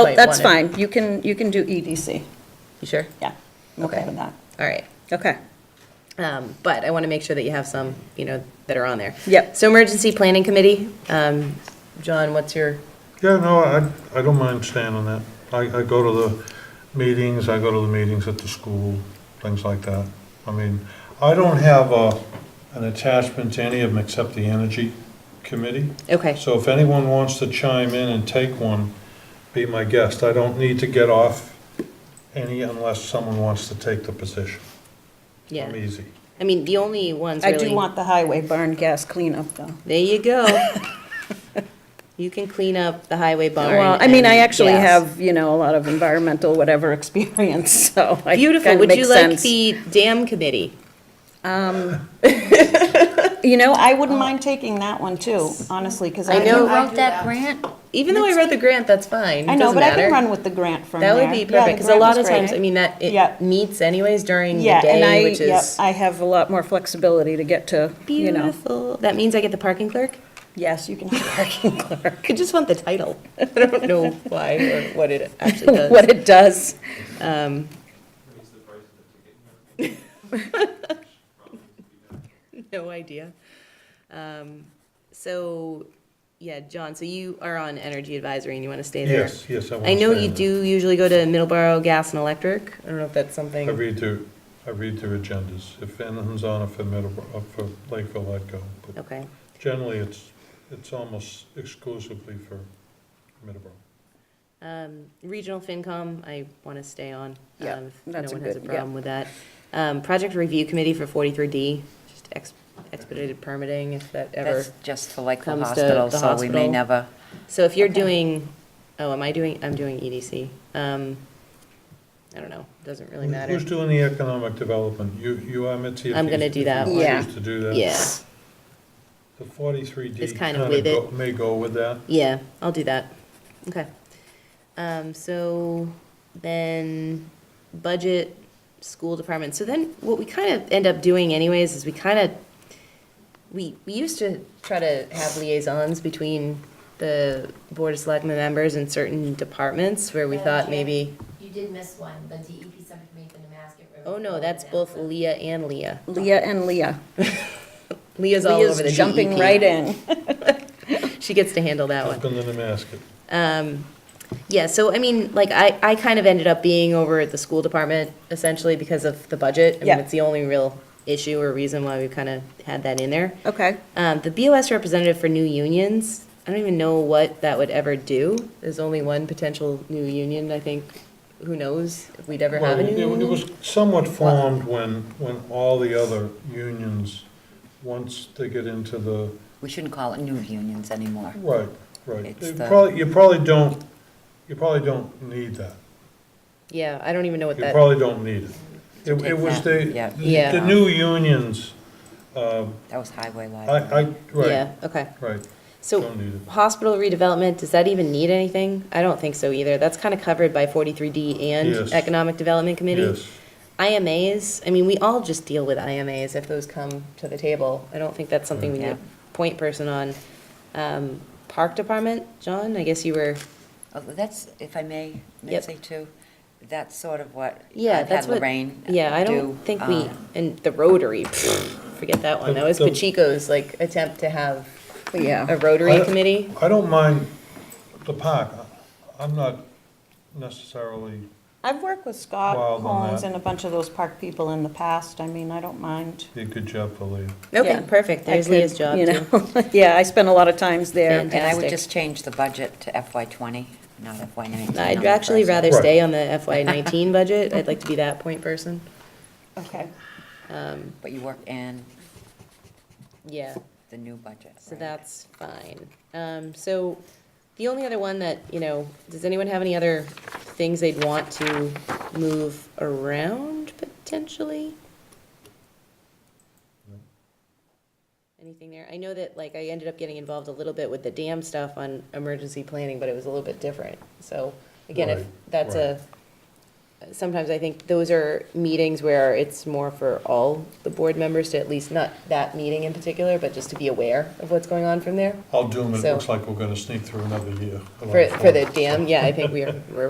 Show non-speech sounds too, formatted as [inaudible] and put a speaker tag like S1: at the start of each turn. S1: Oh,
S2: might
S1: that's
S2: wanna-
S1: fine. You can, you can do EDC.
S2: You sure?
S1: Yeah, I'm okay
S2: Okay.
S1: with that.
S2: All right.
S1: Okay.
S2: Um, But I want to make sure that you have some, you know, that are on there.
S1: Yep.
S2: So Emergency Planning Committee, um, John, what's your,
S3: Yeah, no, I, I don't mind staying on that. I, I go to the meetings, I go to the meetings at the school, things like that. I mean, I don't have a, an attachment to any of them except the energy committee.
S2: okay,
S3: So if anyone wants to chime in and take one, be my guest. I don't need to get off any unless someone wants to take the position.
S2: yeah.
S3: I'm easy.
S2: I mean, the only ones
S1: I
S2: really.
S1: do want the highway barn gas cleanup though.
S2: There
S1: [laughs]
S2: you go. You can clean up the highway barn.
S1: Well, I mean, I
S2: and
S1: actually
S2: gas.
S1: have, you know, a lot of environmental whatever [laughs] experience, so. I
S2: Beautiful.
S1: kinda
S2: Would you
S1: makes
S2: like
S1: sense.
S2: the dam committee?
S1: You know, I wouldn't mind taking that one too, honestly, because I
S2: I know-
S4: You
S1: know,
S4: wrote that grant?
S2: Even though I wrote the grant, that's fine.
S1: I know,
S2: Doesn't
S1: but I can
S2: matter.
S1: run with the grant from there.
S2: That would be
S1: Yeah, the
S2: perfect, because a
S1: grant
S2: lot
S1: was
S2: of
S1: great.
S2: times, I mean, that,
S1: Yeah.
S2: it meets anyways during the
S1: Yeah, and
S2: day,
S1: I,
S2: which
S1: yep,
S2: is
S1: I have a lot more flexibility to get to, you know.
S2: beautiful. That means I get the parking clerk?
S1: Yes, [laughs] you can have a parking clerk.
S2: I just want the title. [laughs] I don't
S1: [laughs]
S2: know why or what it actually does.
S1: What it does.
S2: Um, No idea. Um, So, yeah, John, so you are on Energy Advisory and you want to stay there?
S3: Yes, yes, I want to
S2: I know
S3: stay
S2: you
S3: on that.
S2: do usually go to Middleborough Gas and Electric. I don't know if that's something.
S3: I read their, I read their agendas. If anything's on it for Middleborough, uh, for Lakeville, I'd go. But
S2: Okay,
S3: Generally, it's, it's almost exclusively for Middleborough.
S2: Um, Regional FinCom, I want to stay on.
S1: Yeah,
S2: um, if
S1: that's a
S2: No one has a
S1: good- yeah.
S2: problem with that. Um, Project Review Committee for 43D, just ex- expedited permitting if that ever.
S4: That's just for Lakeville
S2: comes to
S4: Hospital,
S2: the
S4: so we may
S2: hospital.
S4: never.
S2: So if you're doing, oh, am I doing, I'm doing EDC. Um, I don't know, doesn't really matter.
S3: Who's doing the economic development? You, you are, Mitzi? if
S2: I'm
S3: you-
S2: gonna do
S3: if
S2: that
S3: you
S1: one.
S3: choose to do that.
S2: Yeah,
S3: The forty-three D
S2: It's
S3: kind
S2: kinda
S3: of
S2: with
S3: go,
S2: it.
S3: may go with that.
S2: yeah, I'll do that. Okay. Um, so then budget, school department. So then what we kind of end up doing anyways is we kind of, we, we used to try to have liaisons between the board of selectmen members and certain departments where we
S5: Madam
S2: thought
S5: Chair.
S2: maybe,
S5: You did miss one, the E DEP subcommittee for Nemasket River.
S2: oh no, that's both Leah and Leah.
S1: Leah and Leah.
S2: Leah's all
S1: Leah's
S2: over the E
S1: jumping
S2: DEP.
S1: right in.
S2: She gets to handle that
S3: Up
S2: one.
S3: in the Nemasket.
S2: Um, yeah, so I mean, like, I, I kind of ended up being over at the school department essentially because of the budget. I
S1: Yeah.
S2: mean, it's the only real issue or reason why we kind of had that in there.
S1: Okay.
S2: Um, the BOS representative for new unions, I don't even know what that would ever do. There's only one potential new union, I think. Who knows if we'd ever
S3: Well,
S2: have a
S3: it
S2: new
S3: it
S2: union?
S3: was somewhat formed when, when all the other unions, once they get into the,
S4: We shouldn't call it new unions anymore.
S3: right, right.
S4: It's
S3: You
S4: the-
S3: probably, you probably don't, you probably don't need that.
S2: Yeah, I don't even know what
S3: You
S2: that,
S3: probably don't need it. It,
S4: Take
S3: it was
S4: that, yeah.
S3: the,
S2: Yeah.
S3: the- the new unions, um,
S4: That was highway
S3: I,
S4: library.
S3: I, right,
S2: yeah, okay.
S3: right,
S2: So
S3: don't need it.
S2: Hospital redevelopment, does that even need anything? I don't think so either. That's kind of covered by 43D and
S3: Yes.
S2: Economic Development Committee.
S3: Yes,
S2: IMAs, I mean, we all just deal with IMAs if those come to the table. I don't think that's something we need
S4: Yeah.
S2: a point person on. Um, Park Department, John, I guess you were,
S4: Oh, That's, if I may, Mitzi, too, that's sort of what
S2: yeah,
S4: I've
S2: that's
S4: had
S2: what.
S4: Lorraine do.
S2: Yeah, I don't think we,
S4: um,
S2: and the Rotary, pfft, forget that one. That was
S3: The- the-
S2: Pacheco's, like, attempt to have a
S4: Oh.
S1: Yeah.
S3: I
S2: Rotary
S3: don't-
S2: committee.
S3: I don't mind the park, I- I'm not necessarily,
S1: I've worked with Scott
S3: Wild on
S1: Holmes
S3: that.
S1: and a bunch of those park people in the past. I mean, I don't mind.
S3: did a good job for Lee.
S2: Okay,
S1: Yeah.
S2: perfect.
S1: I
S2: There's
S1: could,
S2: Leah's job,
S1: you
S2: too.
S1: know. [laughs] Yeah, I spent a lot of times there.
S2: And-
S4: And I would
S2: fantastic.
S4: just change the budget to FY twenty, not FY nineteen. on
S2: I'd
S4: the
S2: actually
S4: first.
S2: rather
S3: Right.
S2: stay on the FY [laughs] nineteen budget. I'd like to be that point person.
S1: Okay.
S2: Um,
S4: But you work in
S2: yeah,
S4: the new budget.
S2: so
S4: right?
S2: that's fine. Um, so the only other one that, you know, does anyone have any other things they'd want to move around potentially? Anything there? I know that, like, I ended up getting involved a little bit with the dam stuff on emergency planning, but it was a little bit different. So again, if
S3: Right,
S2: that's a, sometimes I think those are meetings where it's more for all the board members to at least, not that meeting in particular, but just to be aware of what's going on from there.
S3: I'll do them, it
S2: So-
S3: looks like we're gonna sneak through another year.
S2: For, for the dam, yeah, I think we are, we're